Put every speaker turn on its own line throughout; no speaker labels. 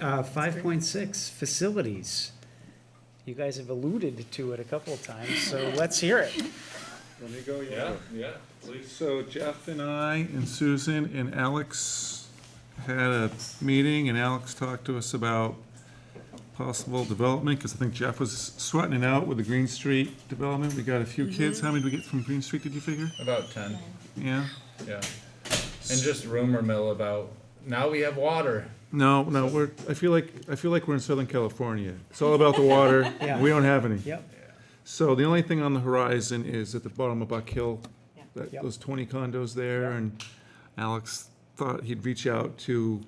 Uh, five point six, facilities. You guys have alluded to it a couple of times, so let's hear it.
Let me go, yeah.
Yeah, yeah, please.
So Jeff and I and Susan and Alex had a meeting and Alex talked to us about possible development, because I think Jeff was sweating it out with the Green Street development. We got a few kids. How many did we get from Green Street, did you figure?
About ten,
Yeah?
yeah. And just rumor mill about, now we have water.
No, no, we're, I feel like, I feel like we're in Southern California. It's all about the water.
Yeah.
We don't have any.
Yep,
So the only thing on the horizon is at the bottom of Buck Hill,
Yeah.
that,
Yep.
those twenty condos there, and Alex thought he'd reach out to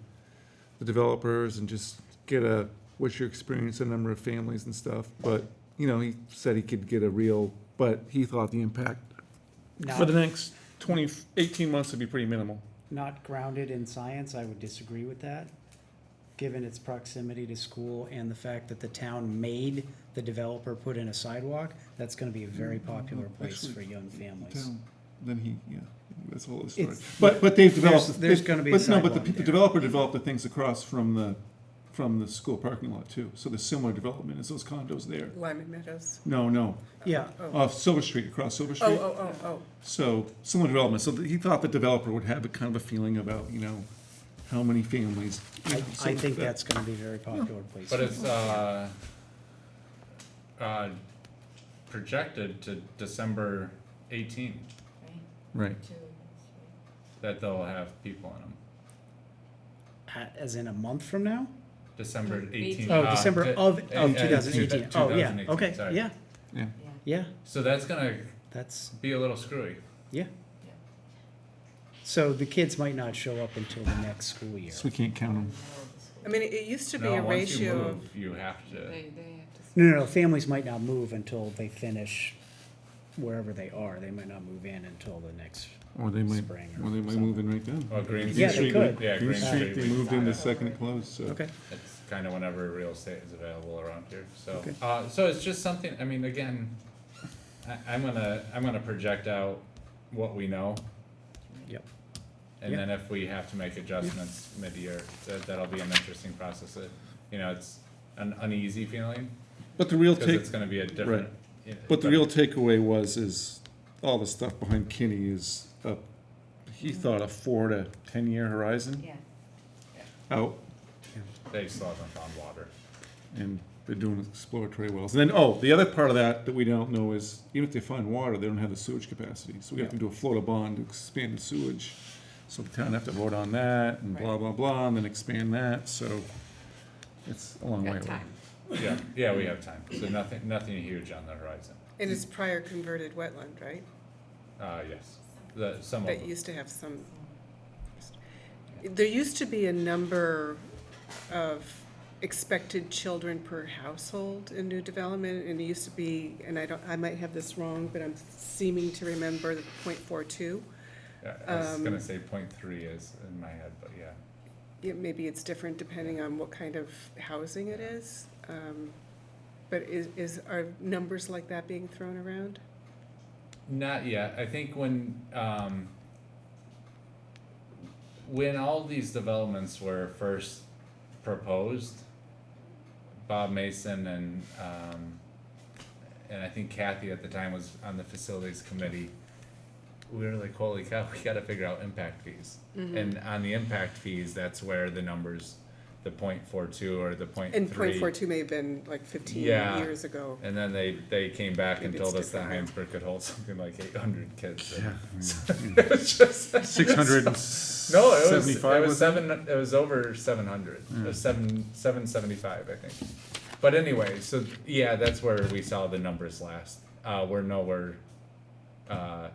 the developers and just get a, what's your experience, a number of families and stuff, but, you know, he said he could get a real, but he thought the impact for
not,
the next 20, 18 months would be pretty minimal.
not grounded in science, I would disagree with that. Given its proximity to school and the fact that the town made the developer put in a sidewalk, that's gonna be a very popular place for young families.
Then he, yeah, that's a whole other
It's-
story. But, but they've developed.
There's- there's
they-
gonna be a
but no, But the
sidewalk
pe- the
there.
developer developed the things across from the, from the school parking lot too. So there's similar development as those condos there.
Lyman Meadows.
No, no,
Yeah,
Oh,
off Silver Street, across Silver
oh,
Street.
oh, oh,
So similar development. So he thought the developer would have a kind of a feeling about, you know, how many families. you
I,
know,
I
something
think
like that.
that's gonna be a very popular place.
But it's, uh, uh, projected to December eighteen,
Right.
that they'll have people in them.
A- As in a month from now?
December eighteen.
Oh,
uh,
December
de-
of,
uh, uh,
of two thousand eighteen.
two-
Oh, yeah,
2018,
okay,
sorry.
yeah,
Yeah.
yeah,
So that's gonna
that's,
be a little screwy.
yeah. So the kids might not show up until the next school year.
So we can't count them.
I mean, it it used to be
No,
a
once you
ratio of
move, you have to,
No, no, no, families might not move until they finish wherever they are. They might not move in until the next,
Or they might,
Spring or
or they might move in right then.
well, Oh, Green
Yeah, they
Street,
could.
yeah,
Green
Green
Street,
Street,
they
we-
moved in the second it closed, so.
okay,
It's kind of whenever real estate is available around here, so,
Okay.
uh, so it's just something, I mean, again, I, I'm gonna, I'm gonna project out what we know,
yep.
and
Yeah.
then if we have to make adjustments mid-year, that, that'll be an interesting process, It- you know, it's an uneasy feeling,
But the real
cause
take,
it's gonna be a different. yeah,
but the real takeaway was, is all the stuff behind Kinney is, a- he thought a four to ten-year horizon
Yeah.
out,
They still haven't found water,
and they're doing exploratory wells. And then, oh, the other part of that that we don't know is, even if they find water, they don't have the sewage capacity, so we have to do a Florida bond to expand the sewage. So the town have to vote on that, and blah,
Right.
blah, blah, and then expand that, so it's a long way away.
yeah, yeah, we have time, so nothing, nothing huge on the horizon,
And it's prior converted wetland, right?
uh, yes, the, some of
That
them,
used to have some. There used to be a number of expected children per household in new development, and it used to be, and I don't, I might have this wrong, but I'm seeming to remember the point four two.
Yeah, I was
um,
gonna say point three is in my head, but yeah.
Yeah, maybe it's different depending on what kind of housing it is. Um, But is, is, are numbers like that being thrown around?
Not yet. I think when um, when all these developments were first proposed, Bob Mason and um, and I think Kathy at the time was on the facilities committee. We were like, holy cow, we got to figure out impact fees.
Mm-hmm.
And on the impact fees, that's where the numbers, the point four two or the point
And
three.
point four two may have been like fifteen
Yeah.
years ago.
And then they, they came back and
Maybe it's
told us that
different.
Heinsberg could hold something like eight hundred kids.
Yeah.
It was just-
Six hundred and
No, it was, it
seventy-five,
was
was it?
seven, it was over seven hundred, it was seven, seven seventy-five, I think. But anyway, so, yeah, that's where we saw the numbers last, uh, we're nowhere, uh,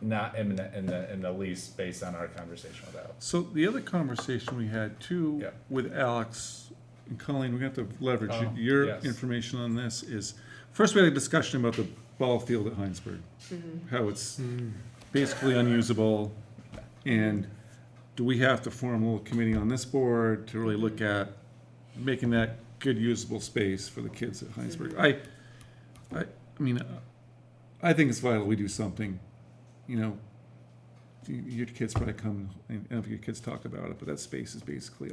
not imminent in the, in the least based on our conversation with Alex.
So the other conversation we had too
Yeah.
with Alex and Colleen, we're gonna have to leverage
Oh,
your
yes.
information on this is, first we had a discussion about the ball field at Heinsberg. How it's
Mm.
basically unusable and do we have to form a little committee on this board to really look at making that good usable space for the kids at Heinsberg? I, I, I mean, I think it's vital we do something, you know, y- your kids probably come, and I don't know if your kids talk about it, but that space is basically